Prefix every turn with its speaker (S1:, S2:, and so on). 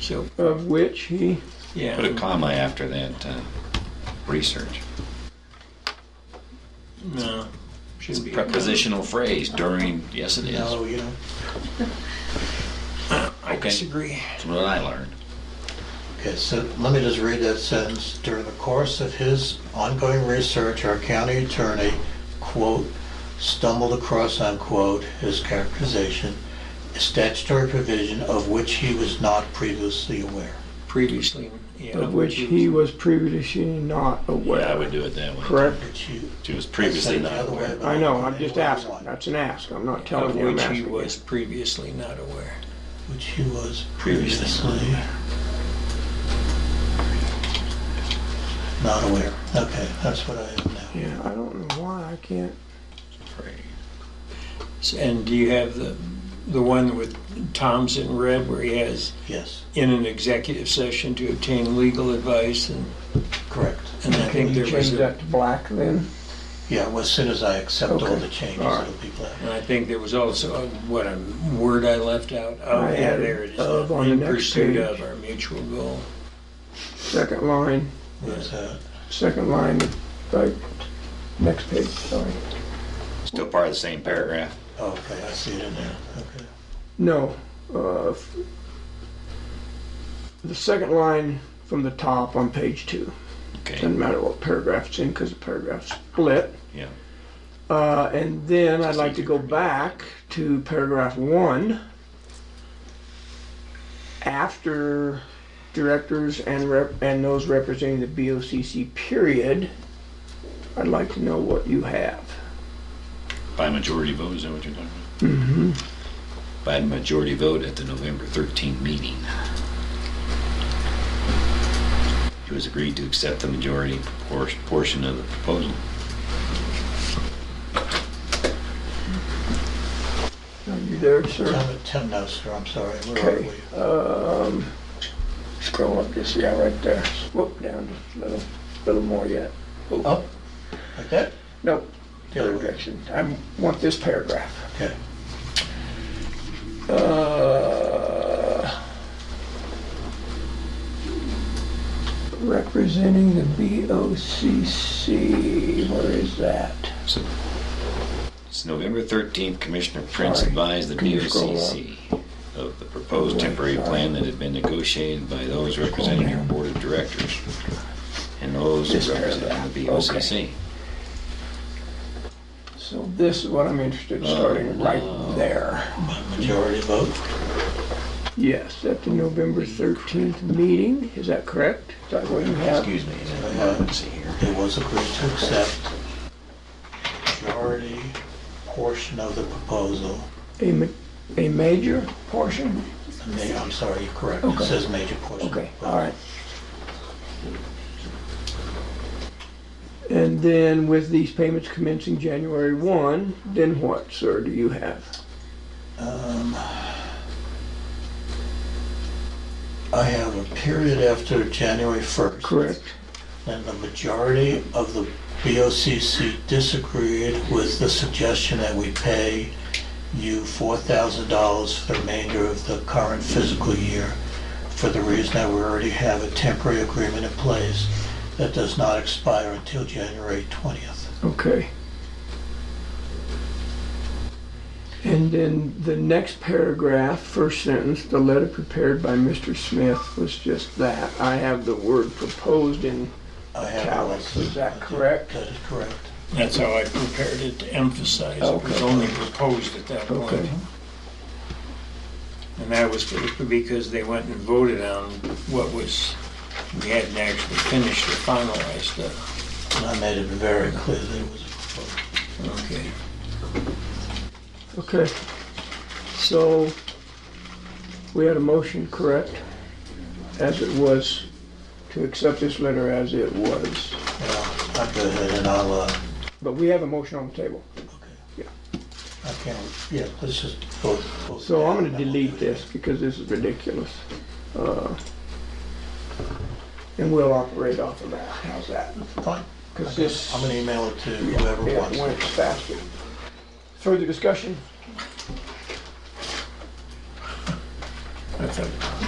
S1: So,
S2: of which he,
S1: yeah.
S3: Put a comma after that uh, research.
S1: No.
S3: It's
S1: Should
S3: a
S1: be
S3: prepositional phrase during. Yes, it is.
S1: No, you know. I
S3: Okay.
S1: disagree.
S3: That's what I learned.
S4: Okay, so let me just read that sentence. During the course of his ongoing research, our county attorney, quote, stumbled across, unquote, his characterization, a statutory provision of which he was not previously aware.
S1: Previously, yeah.
S2: of which he was previously not aware.
S3: Yeah, I would do it that way.
S2: Correct?
S4: Which you,
S3: She was previously
S4: Said the
S3: not
S4: other way
S3: aware.
S4: about-
S2: I know, I'm just asking.
S4: Of
S2: That's an ask. I'm not
S1: Of
S2: telling you I'm
S1: which he
S2: asking. you.
S1: was previously not aware.
S4: Which he was
S3: Previously.
S4: previously not aware. Okay, that's what I have now.
S2: Yeah, I don't know why I can't.
S1: S- And do you have the, the one with Tom's in red where he has
S4: Yes,
S1: in an executive session to obtain legal advice and,
S4: correct.
S1: and I think there was
S2: Change
S1: a,
S2: that to black then?
S4: Yeah, well, as soon as I accept all
S2: Okay.
S4: the changes,
S2: All right.
S4: it'll be black.
S1: and I think there was also, a- what, a word I left out? Oh,
S2: I
S1: yeah,
S2: added
S1: there it is.
S2: of on the
S1: In
S2: next page.
S1: pursuit of our mutual goal.
S2: Second line,
S4: Where's that?
S2: second line, right, next page, sorry.
S3: Still part of the same paragraph.
S4: Oh, okay, I see it in there. Okay.
S2: No, uh, f- the second line from the top on page two. Doesn't
S3: Okay.
S2: matter what paragraph it's in because the paragraph's split.
S3: Yeah.
S2: Uh, and then I'd like to go back to paragraph one. After directors and rep, and those representing the BOCC period, I'd like to know what you have.
S3: By majority vote, is that what you're talking about? Mm-hmm. By majority vote at the November 13 meeting. It was agreed to accept the majority por- portion of the proposal.
S2: Are you there, sir?
S4: Tom, Tim, no, sir, I'm sorry, where are
S2: Okay,
S4: we?
S2: um, scroll up just, yeah, right there. Whoop, down just a little, little more yet.
S4: Up, like that?
S2: Nope, the
S4: The
S2: other
S4: other way.
S2: direction. I want this paragraph.
S4: Okay.
S2: Uh, Representing the BOCC, where is that?
S3: So it's November 13th, Commissioner Prince
S2: Sorry.
S3: advised the
S2: Can you scroll
S3: BOCC of the proposed temporary
S2: Sorry.
S3: plan that had been negotiated by those representing your board of directors and those
S2: This
S3: representing the
S2: paragraph, okay.
S3: BOCC.
S2: So this is what I'm interested in, starting right there.
S4: By majority vote?
S2: Yes, at the November 13th meeting, is that correct? Is that what you have?
S3: Excuse me,
S4: Yeah.
S3: let's see here.
S4: It was agreed to accept majority portion of the proposal.
S2: A, ma- a major portion?
S4: The ma- I'm sorry, you're correct. It
S2: Okay.
S4: says major portion. of the
S2: Okay,
S4: proposal.
S2: all right. And then with these payments commencing January 1, then what, sir, do you have?
S4: Um, I have a period after January 1st.
S2: Correct.
S4: And the majority of the BOCC disagreed with the suggestion that we pay you $4,000 for the remainder of the current fiscal year for the reason that we already have a temporary agreement in place that does not expire until January 20th.
S2: Okay. And then the next paragraph, first sentence, the letter prepared by Mr. Smith was just that. I have the word proposed in,
S4: I have
S2: Italics,
S4: it.
S2: is that correct?
S4: That is correct.
S1: That's how I prepared it to emphasize. It was
S2: Okay.
S1: only proposed at that point.
S2: okay,
S1: And that was for- because they went and voted on what was, we hadn't actually finished or finalized stuff.
S4: And I made it very clear that it was proposed.
S1: Okay.
S2: okay. So, we had a motion, correct? As it was, to accept this letter as it was.
S4: Well, I'll go ahead and I'll, uh,
S2: But we have a motion on the table.
S4: I can't, yeah, let's just vote. vote
S2: So I'm gonna
S4: down.
S2: delete this because this is ridiculous. Uh, And we'll operate off of that, how's that?
S4: Fine.
S2: Because this,
S4: I'm gonna email it to
S2: yeah,
S4: whoever wants.
S2: when
S4: it.
S2: it's faster. Further discussion?
S1: I thought